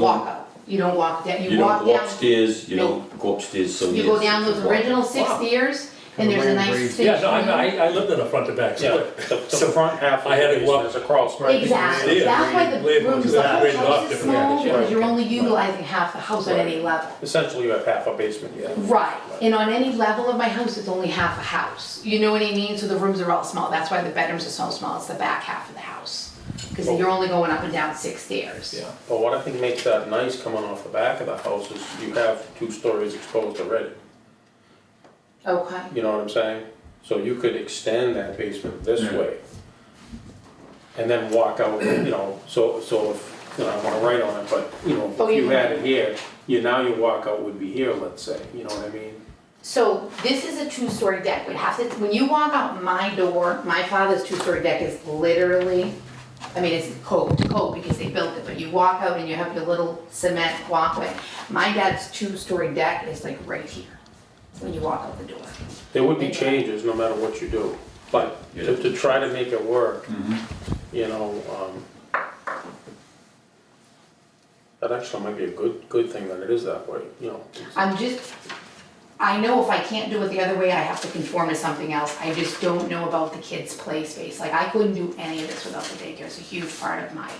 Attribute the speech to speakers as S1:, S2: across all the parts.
S1: walk up. You don't walk down,
S2: You
S1: you
S2: don't
S1: walk
S2: go
S1: down,
S2: upstairs, you
S1: No.
S2: don't go upstairs some
S1: you
S2: years.
S1: go down those
S2: Walk.
S1: original six
S3: Wow.
S1: stairs, and there's a
S3: Grand
S1: nice
S3: breeze.
S1: station.
S4: Yeah, no, I, I, I lived in a front to back,
S5: Yeah,
S4: so
S5: the, the front half of
S4: I had
S5: the
S4: to walk-
S5: basement is a crawl space.
S1: Exactly,
S4: Yeah.
S1: that's why the
S4: Label
S1: rooms,
S4: is
S1: the
S4: that,
S1: whole
S4: rated off
S1: house is
S4: different
S1: small,
S4: areas,
S1: because
S4: yeah.
S1: you're only utilizing half the house on any level.
S5: Essentially, you have half a basement, yeah.
S1: Right, and on any level of my house, it's only half a house, you know what I mean, so the rooms are all small, that's why the bedrooms are so small, it's the back half of the house. Cause you're only going up and down six stairs.
S5: Yeah, but what I think makes that nice coming off the back of the house is you have two stories exposed already,
S1: Okay,
S5: you know what I'm saying? So you could extend that basement this
S2: Yeah.
S5: way. And then walk out, you know, so, so if, you know, I don't wanna write on it, but, you know,
S1: Oh,
S5: if you
S1: yeah.
S5: had it here, you, now your walkout would be here, let's say, you know what I mean?
S1: so this is a two-story deck, we have to, when you walk out my door, my father's two-story deck is literally, I mean, it's code to code because they built it, but you walk out and you have your little cement walkway. My dad's two-story deck is like right here, when you walk out the door.
S5: There would be changes no matter what you do, but to, to try to make it work, you know, um, that actually might be a good, good thing that it is that way, you know.
S1: I'm just, I know if I can't do it the other way, I have to conform to something else. I just don't know about the kids' play space. Like, I couldn't do any of this without the daycare. It's a huge part of my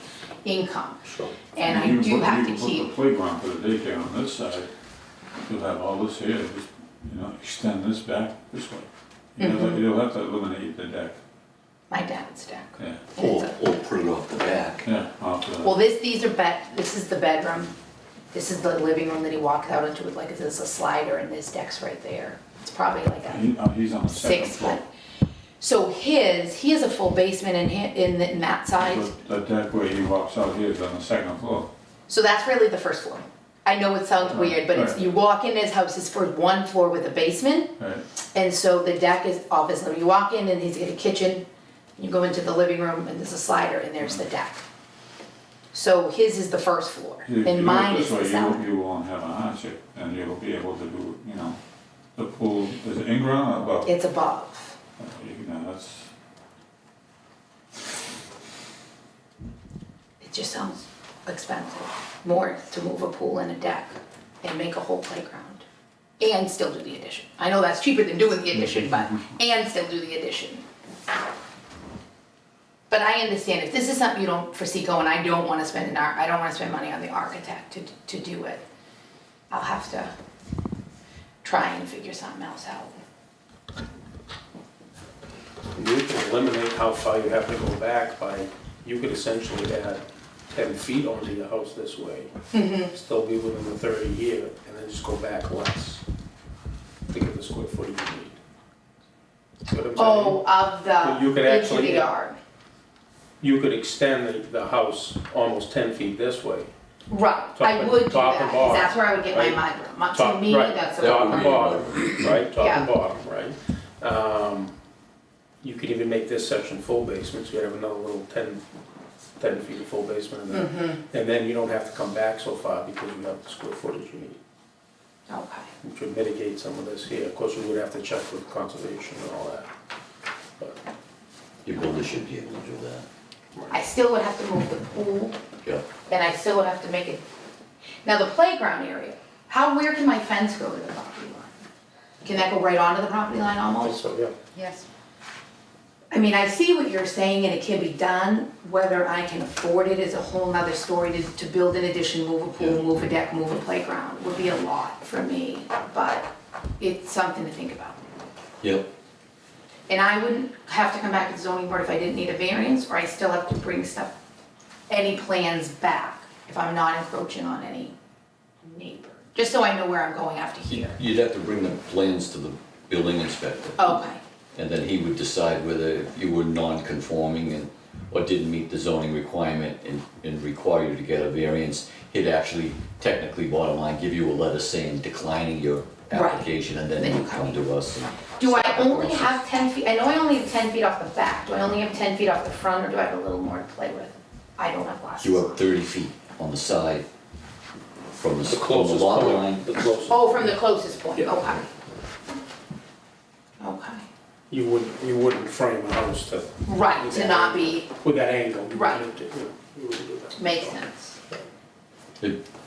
S1: income.
S5: Sure.
S1: And
S6: You
S1: I
S6: can
S1: do
S6: put-
S1: have to
S6: You can
S1: keep,
S6: put the playground for the daycare on this side, you'll have all this here, just, you know, extend this back this way.
S1: Mm-hmm.
S6: You'll, you'll have to eliminate the deck,
S1: my dad's deck.
S6: yeah,
S1: And it's
S2: Or,
S1: a-
S2: or put it off the back.
S6: yeah, off the.
S1: Well, this, these are bed, this is the bedroom. This is the living room that he walks out into with like, this is a slider and this deck's right there. It's probably like a
S6: He- uh, he's on the second
S1: six
S6: floor.
S1: foot. So his, he has a full basement in, hi- in the- in that side.
S6: But The deck where he walks out here is on the second floor.
S1: So that's really the first floor. I know it sounds weird, but it's,
S6: Right.
S1: you walk in his house, it's for one floor with a basement,
S6: Right,
S1: and so the deck is off his living. You walk in and he's got a kitchen, you go into the living room and there's a slider and there's the deck. So his is the first floor,
S6: If you do it
S1: and mine
S6: this
S1: is the
S6: way, you-
S1: cellar.
S6: You won't have a hardship, and you'll be able to do, you know, the pool, is it in-ground or above?
S1: It's above.
S6: Uh, You know, that's,
S1: It just sounds expensive, more to move a pool and a deck and make a whole playground. And still do the addition. I know that's cheaper than doing the addition, but, and still do the addition. But I understand, if this is something you don't foresee going, I don't wanna spend an ar, I don't wanna spend money on the architect to, to do it. I'll have to try and figure something else out.
S5: You can eliminate how far you have to go back by, you could essentially add ten feet onto your house this way. Still be within the thirty year, and then just go back less to get the square footage you need. See what I'm saying?
S1: Oh, of
S5: But you could
S1: the, into
S5: actually-
S1: the yard,
S5: You could extend the, the house almost ten feet this way,
S1: right,
S5: Top
S1: I
S5: and-
S1: would do
S5: top and
S1: that, 'cause
S5: bottom,
S1: that's where I would get my mud
S5: right?
S1: room, Uh, to
S5: Top-
S1: me,
S5: right,
S1: that's a.
S2: that
S5: top
S2: would
S5: and
S2: be-
S5: bottom, right, top
S1: Yeah.
S5: and bottom, right? Um, You could even make this section full basement, so you have another little ten, ten feet of full basement in there.
S1: Mm-hmm.
S5: And then you don't have to come back so far because you have the square footage you need,
S1: Okay,
S5: which would mitigate some of this here. Of course, we would have to check with conservation and all that. But
S2: Your builder should be able to do that.
S1: I still would have to move the pool,
S2: Yeah.
S1: and I still would have to make it, now the playground area, how, where can my fence go to the property line? Can that go right onto the property line almost?
S5: So, yeah,
S1: Yes. I mean, I see what you're saying, and it can be done, whether I can afford it is a whole nother story, to, to build an addition, move a pool, move a deck, move a playground, would be a lot for me, but it's something to think about.
S2: Yep.
S1: And I wouldn't have to come back to the zoning board if I didn't need a variance, or I still have to bring stuff, any plans back if I'm not encroaching on any neighbor, just so I know where I'm going after here.
S2: You'd have to bring the plans to the building inspector.
S1: Okay,
S2: And then he would decide whether you were non-conforming and, or didn't meet the zoning requirement and, and require you to get a variance. He'd actually technically, bottom line, give you a letter saying declining your
S1: Right.
S2: application and then
S1: Then
S2: you
S1: you
S2: come to us and.
S1: do I
S2: start the
S1: only
S2: process.
S1: have ten feet, I know I only have ten feet off the back, do I only have ten feet off the front, or do I have a little more to play with? I don't have glasses.
S2: You have thirty feet on the side from the,
S5: the
S2: s- from the
S5: closest
S2: lot
S5: point,
S2: line.
S5: the closest.
S1: Oh, from the closest point,
S5: Yeah.
S1: okay. Okay,
S5: You wouldn't, you wouldn't frame a house to,
S1: right, to not be,
S5: with that angle. you
S1: Right.
S5: wouldn't do- you wouldn't do that.
S1: makes sense.
S2: The